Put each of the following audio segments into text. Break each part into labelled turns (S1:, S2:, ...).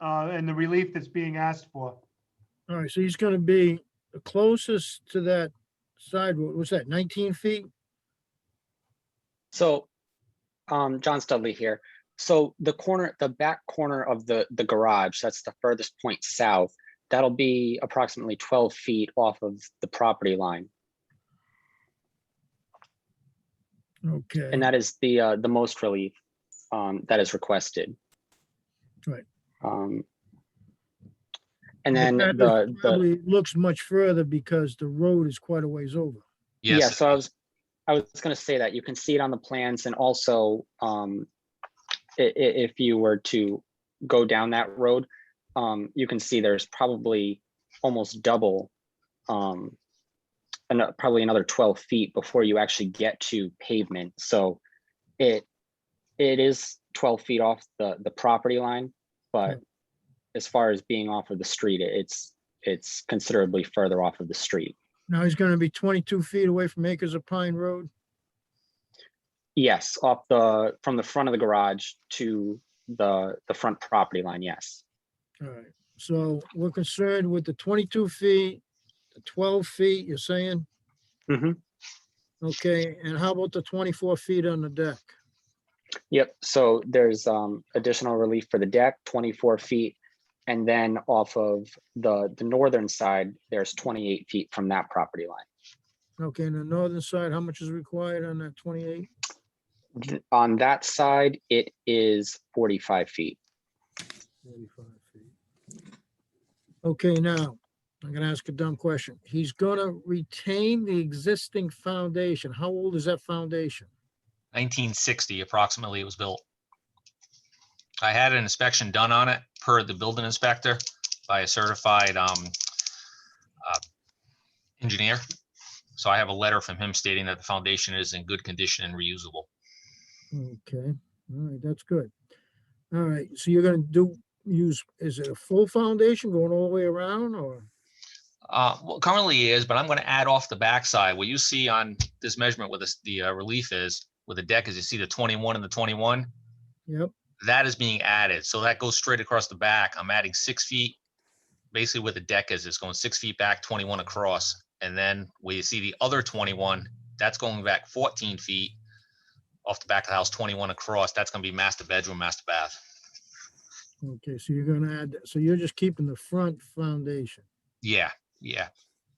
S1: uh, and the relief that's being asked for.
S2: All right, so he's gonna be the closest to that side, what was that, nineteen feet?
S3: So, um, John Studley here. So the corner, the back corner of the, the garage, that's the furthest point south. That'll be approximately twelve feet off of the property line.
S2: Okay,
S3: And that is the, uh, the most relief, um, that is requested.
S2: Right.
S3: Um. And
S2: But
S3: then
S2: that is
S3: the, the,
S2: probably looks much further because the road is quite a ways over.
S3: yeah,
S4: Yes,
S3: so I was, I was gonna say that you can see it on the plans and also, um, i- i- if you were to go down that road, um, you can see there's probably almost double, um, and probably another twelve feet before you actually get to pavement, so it, it is twelve feet off the, the property line, but as far as being off of the street, it's, it's considerably further off of the street.
S2: Now he's gonna be twenty-two feet away from Acres of Pine Road.
S3: Yes, off the, from the front of the garage to the, the front property line, yes.
S2: All right, so we're concerned with the twenty-two feet, the twelve feet, you're saying?
S3: Mhm.
S2: Okay, and how about the twenty-four feet on the deck?
S3: Yep, so there's um additional relief for the deck, twenty-four feet. And then off of the, the northern side, there's twenty-eight feet from that property line.
S2: Okay, and the northern side, how much is required on that twenty-eight?
S3: Th- On that side, it is forty-five feet.
S2: Forty-five feet. Okay, now, I'm gonna ask a dumb question. He's gonna retain the existing foundation. How old is that foundation?
S4: nineteen sixty approximately it was built. I had an inspection done on it per the building inspector by a certified um uh, engineer. So I have a letter from him stating that the foundation is in good condition and reusable.
S2: Okay, all right, that's good. All right, so you're gonna do, use, is it a full foundation going all the way around or?
S4: Uh, well, currently is, but I'm gonna add off the backside. What you see on this measurement with this, the uh, relief is, with the deck is you see the twenty-one and the twenty-one.
S2: Yep,
S4: that is being added. So that goes straight across the back. I'm adding six feet. Basically where the deck is, it's going six feet back, twenty-one across. And then where you see the other twenty-one, that's going back fourteen feet off the back of the house, twenty-one across. That's gonna be master bedroom, master bath.
S2: okay, so you're gonna add, that- so you're just keeping the front foundation.
S4: Yeah, yeah.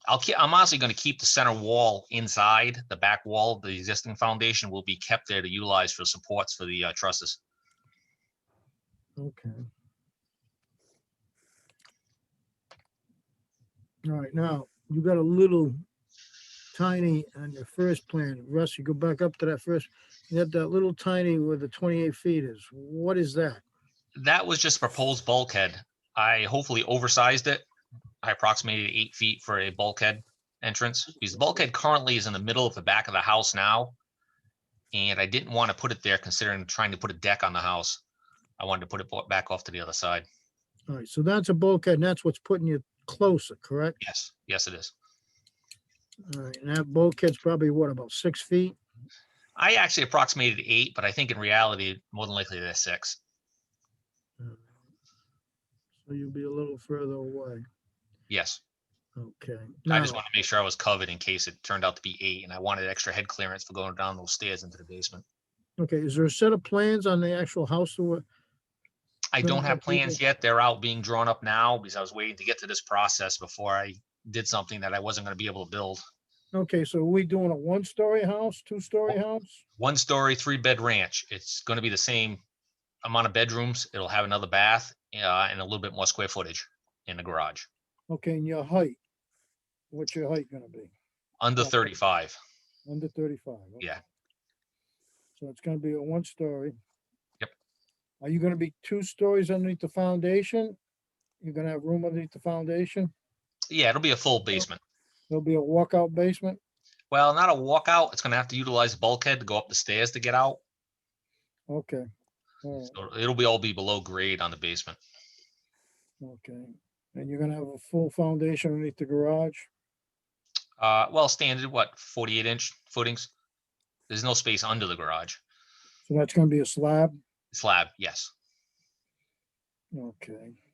S4: I'll keep, I'm honestly gonna keep the center wall inside, the back wall, the existing foundation will be kept there to utilize for supports for the uh, trusses.
S2: Okay. All right, now, you got a little tiny on your first plan. Russ, you go back up to that first, you had that little tiny where the twenty-eight feet is. What is that?
S4: that was just proposed bulkhead. I hopefully oversized it. I approximated eight feet for a bulkhead entrance because the bulkhead currently is in the middle of the back of the house now. And I didn't want to put it there considering trying to put a deck on the house. I wanted to put it bo- back off to the other side.
S2: All right, so that's a bulkhead and that's what's putting you closer, correct?
S4: Yes, yes, it is.
S2: All right, and that bulkhead's probably what, about six feet?
S4: I actually approximated eight, but I think in reality, more than likely they're six.
S2: So you'll be a little further away.
S4: Yes.
S2: Okay.
S4: I just
S2: now-
S4: wanted to make sure I was covered in case it turned out to be eight and I wanted extra head clearance for going down those stairs into the basement.
S2: Okay, is there a set of plans on the actual house or what?
S4: I
S2: When
S4: don't
S2: is
S4: have
S2: that due
S4: plans
S2: date?
S4: yet. They're out being drawn up now because I was waiting to get to this process before I did something that I wasn't gonna be able to build.
S2: Okay, so are we doing a one-story house, two-story house?
S4: One story, three bed ranch. It's gonna be the same amount of bedrooms. It'll have another bath, uh, and a little bit more square footage in the garage,
S2: Okay, and your height? What's your height gonna be?
S4: under
S2: Okay.
S4: thirty-five.
S2: Under thirty-five? okay.
S4: Yeah.
S2: So it's gonna be a one-story?
S4: Yep.
S2: Are you gonna be two stories underneath the foundation? You're gonna have room underneath the foundation?
S4: Yeah, it'll be a full basement.
S2: There'll be a walkout basement?
S4: Well, not a walkout. It's gonna have to utilize bulkhead to go up the stairs to get out.
S2: Okay. All right,
S4: So It'll be all be below grade on the basement.
S2: okay. And you're gonna have a full foundation underneath the garage?
S4: Uh, well, standard, what, forty-eight inch footings? There's no space under the garage.
S2: So that's gonna be a slab?
S4: Slab, yes.
S2: Okay.